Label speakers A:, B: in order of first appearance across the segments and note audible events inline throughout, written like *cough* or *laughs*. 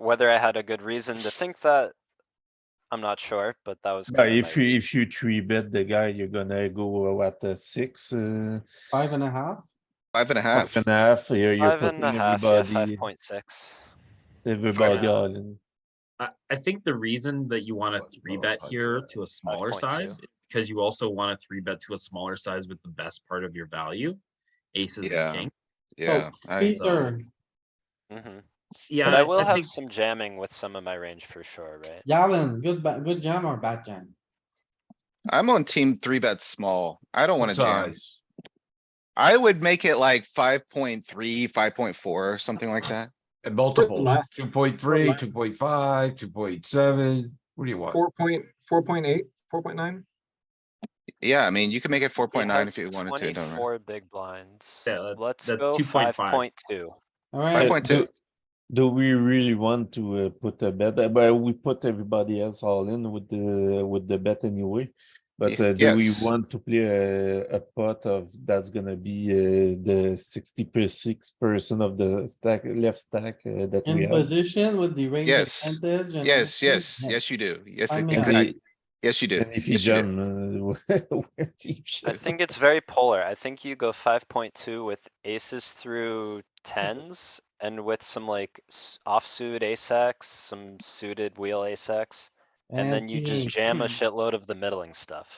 A: Whether I had a good reason to think that, I'm not sure, but that was.
B: But
A: kinda
B: if
A: my-
B: you, if you three bet the guy, you're gonna go at the six, uh,
C: Five and a half?
D: Five and a half.
B: half and a half, you're, you're
A: Five and
B: putting
A: a half, yeah,
B: everybody,
A: five point six.
B: everybody
E: Yeah.
B: all in.
E: I, I think the reason that you want
D: Five
E: to three
D: point
E: bet
D: five
E: here
D: oh, uh, five.
E: to a smaller
A: 5.2.
E: size, is because you also want to three bet to a smaller size with the best part of your value. Aces
D: Yeah.
E: and king.
D: Yeah, I,
C: Peter,
A: Mm-hmm.
E: Yeah,
A: But I will have
E: think-
A: some jamming with some of my range for sure, right?
C: Yalan, good, ba- good jam or bad jam?
D: I'm on team three bet small. I don't wanna jam.
F: Size.
D: I would make it like 5.3, 5.4, something like that.
F: And multiple,
G: less.
F: two point three,
G: less.
F: two point five, two point seven, what do you want?
G: Four point, four point eight, four point nine?
D: Yeah, I mean, you could make it four
A: He
D: point nine
A: has
D: if you wanted to, don't worry.
A: Twenty-four big blinds.
E: Yeah, that's-
A: Let's
E: that's
A: go five
E: 2.5.
A: point two.
D: Five
C: Alright,
D: point two,
B: Uh, Do- Do we really want to uh, put a bet, Uh, but we put everybody else all in with the, with the bet anyway? But
D: Ye-
B: uh, do we
D: yes.
B: want to play a, a pot of, that's gonna be uh, the sixty per six percent of the stack, left stack uh, that we
C: in
B: have?
C: position with the range
D: Yes.
C: advantage. and
D: yes,
C: everything?
D: yes, yes, you do, yes,
C: Five and a half.
D: exactly, yes, you do.
B: And if you
D: Yes, you do.
B: jam, uh, *laughs* where do you
A: I
B: jam?
A: think it's very polar. I think you go five point two with aces through tens and with some like s- offsuit ace X, some suited wheel ace X. And then you just
C: the-
A: jam a shitload of the middling stuff.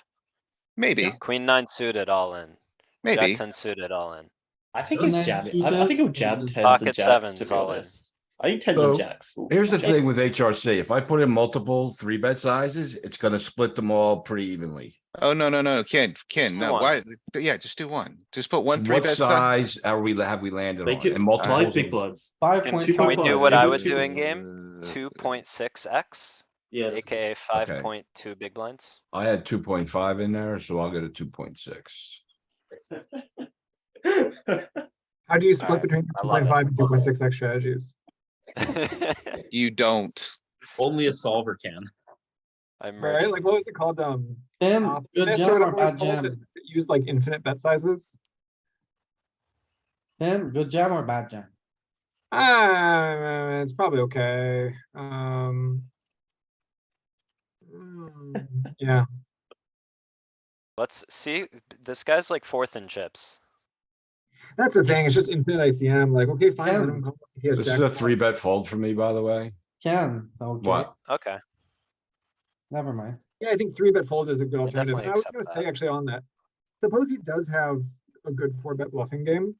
D: Maybe,
A: Queen nine suited all in,
D: maybe.
A: jack ten suited all in.
H: I think
C: And
H: he's
C: then
H: jabbing. I, I
C: suited
H: think he'll
C: and
H: jab
C: then
H: tens
A: pocket
H: and jacks. To
A: sevens,
H: be
A: all in.
H: honest, I think tens and
F: So,
H: jacks. will-
F: Here's the
H: jack-
F: thing with HRC, if I put in multiple three bet sizes, it's gonna split them all pretty evenly.
D: Oh, no, no, no, Ken, Ken,
A: do
D: no,
A: one.
D: why, yeah, just do one, just put one
F: And
D: three
F: What
D: bet side.
F: size are we, have we landed
H: Make
F: on?
H: it
F: And
H: five big
F: multiple.
H: bloods.
C: Five
A: Can
C: point
A: can we
C: five.
A: do what I
C: Yeah,
A: was
C: two-
A: doing
D: Mm,
A: game?
D: uh,
A: Two point six X,
H: Yeah. *laughs* that's-
A: AKA five point two big blinds. *laughs*
F: I had two point five in there, so I'll go to two point six.
G: How do you
A: Alright,
G: split between
A: I
G: two
A: love it.
G: point five and two point six X strategies?
D: You don't,
E: Only a solver can.
A: I merged
G: Right, like what was it called? Um.
C: Then,
G: op-
C: good
G: Dennis
C: jam
G: Jordan
C: or
G: always
C: bad
G: calls it-
C: jam?
G: it Used like infinite bet sizes.
C: Then, good jam or bad jam?
G: Ah, it's probably okay, um. mm, Yeah,
A: Let's see, this guy's like fourth in chips.
G: that's the thing, it's just infinite ICM, like, okay, fine, let
C: Yeah.
G: him call us if he has
F: This
G: jack
F: is a
G: of
F: three
G: clubs.
F: bet fold for me, by the way.
C: Can, okay,
F: What?
A: Okay,
C: never mind.
G: Yeah, I think three bet fold is a good alternative.
A: definitely
G: I was
A: accept
G: gonna
A: that.
G: say actually on that, suppose he does have a good four bet bluffing game.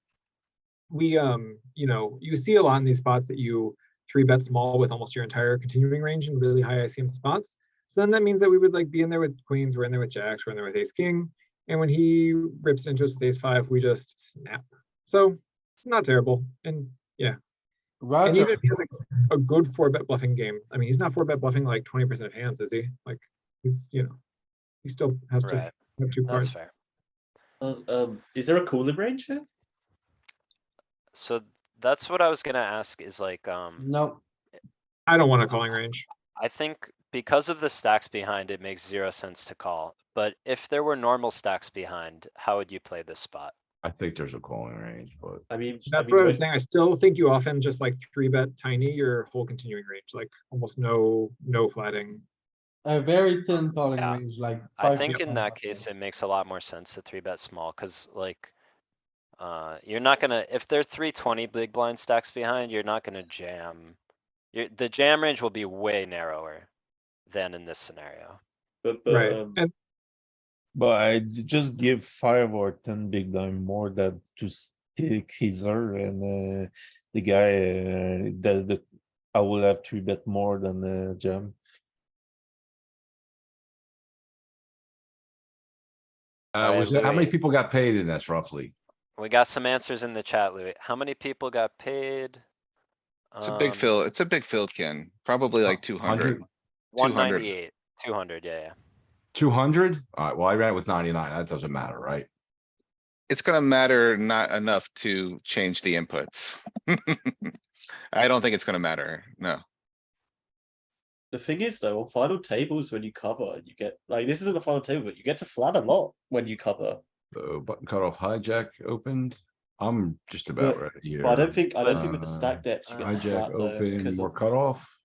G: We, um, you know, you see a lot in these spots that you three bet small with almost your entire continuing range in really high ICM spots. So then that means that we would like be in there with queens, we're in there with jacks, we're in there with ace king. And when he rips into us with ace five, we just snap. So not terrible. And and even
C: Roger,
G: if he has a, a good four bet bluffing game, I mean, he's not four bet bluffing like twenty percent of hands, is he? Like, he's, you know, he still has to
A: right,
G: have two
A: that's
G: cards.
A: fair.
H: Um, is there a cooling range here?
A: So that's what I was gonna ask is like, um,
C: no,
G: I don't want a calling range.
A: I think because of the stacks behind, it makes zero sense to call. But if there were normal stacks behind, how would you play this spot?
F: I think there's a calling range, but.
H: I mean,
G: That's
H: mean,
G: what I was
H: when-
G: saying. I still think you often just like three bet tiny your whole continuing range, like almost no, no flatting.
C: a very thin calling
A: Yeah.
C: range, like.
A: I
C: 5%.
A: think in that case, it makes a lot more sense to three bet small, cuz like. Uh, you're not gonna, if they're three twenty big blind stacks behind, you're not gonna jam. Your, the jam range will be way narrower than in this scenario.
H: But, but,
G: Right.
H: um,
G: And
B: But I j- just give five or ten big blind more than to stick Caesar and uh, the guy uh, that the I will have three bet more than uh, jam.
F: Uh,
A: Alright,
F: uh, was it, how many
A: Louis.
F: people got paid in this roughly?
A: We got some answers in the chat, Louis. How many people got paid? Um,
D: It's a
C: Um,
D: big fill, it's a big field, Ken, probably like two hundred.
A: One ninety-eight, two hundred, yeah, yeah.
F: Two hundred? Alright, well, I ran it with ninety-nine. That doesn't matter, right?
D: It's gonna matter not enough to change the inputs. *laughs* I don't think it's gonna matter, no.
H: the thing is though, on final tables when you cover, you get like this isn't the final table, but you get to flat a lot when you cover.
F: So button cutoff hijack opened.
C: I'm just about
F: But-
C: right here.
F: But I don't think, I don't think with the
C: Uh,
F: stack depth, you get to
C: Hijack
F: flat though.
C: open,
F: 'cause
C: we're
F: of-
C: cut off.